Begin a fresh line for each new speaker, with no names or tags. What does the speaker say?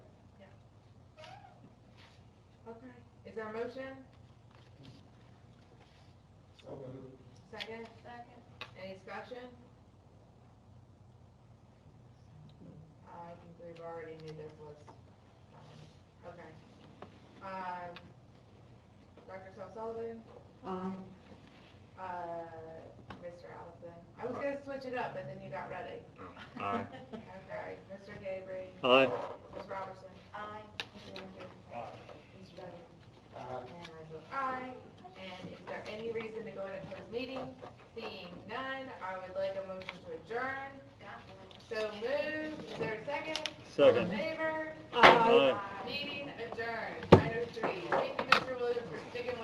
Is there a motion?
So moved.
Second?
Second.
Any discussion? I think we've already knew there was, um, okay. Um, Dr. Tom Sullivan,
Aye.
uh, Mr. Allison. I was gonna switch it up, but then you got ready.
Aye.
Okay, Mr. Gabriel.
Aye.
Ms. Robertson.
Aye.
Mr. Winfrey.
Aye.
Mr. Dudley.
Aye.
And I vote aye. And is there any reason to go into closed meeting? Seeing none, I would like a motion to adjourn.
Got one.
So moved. Is there a second? All in
Second.
favor?
Aye.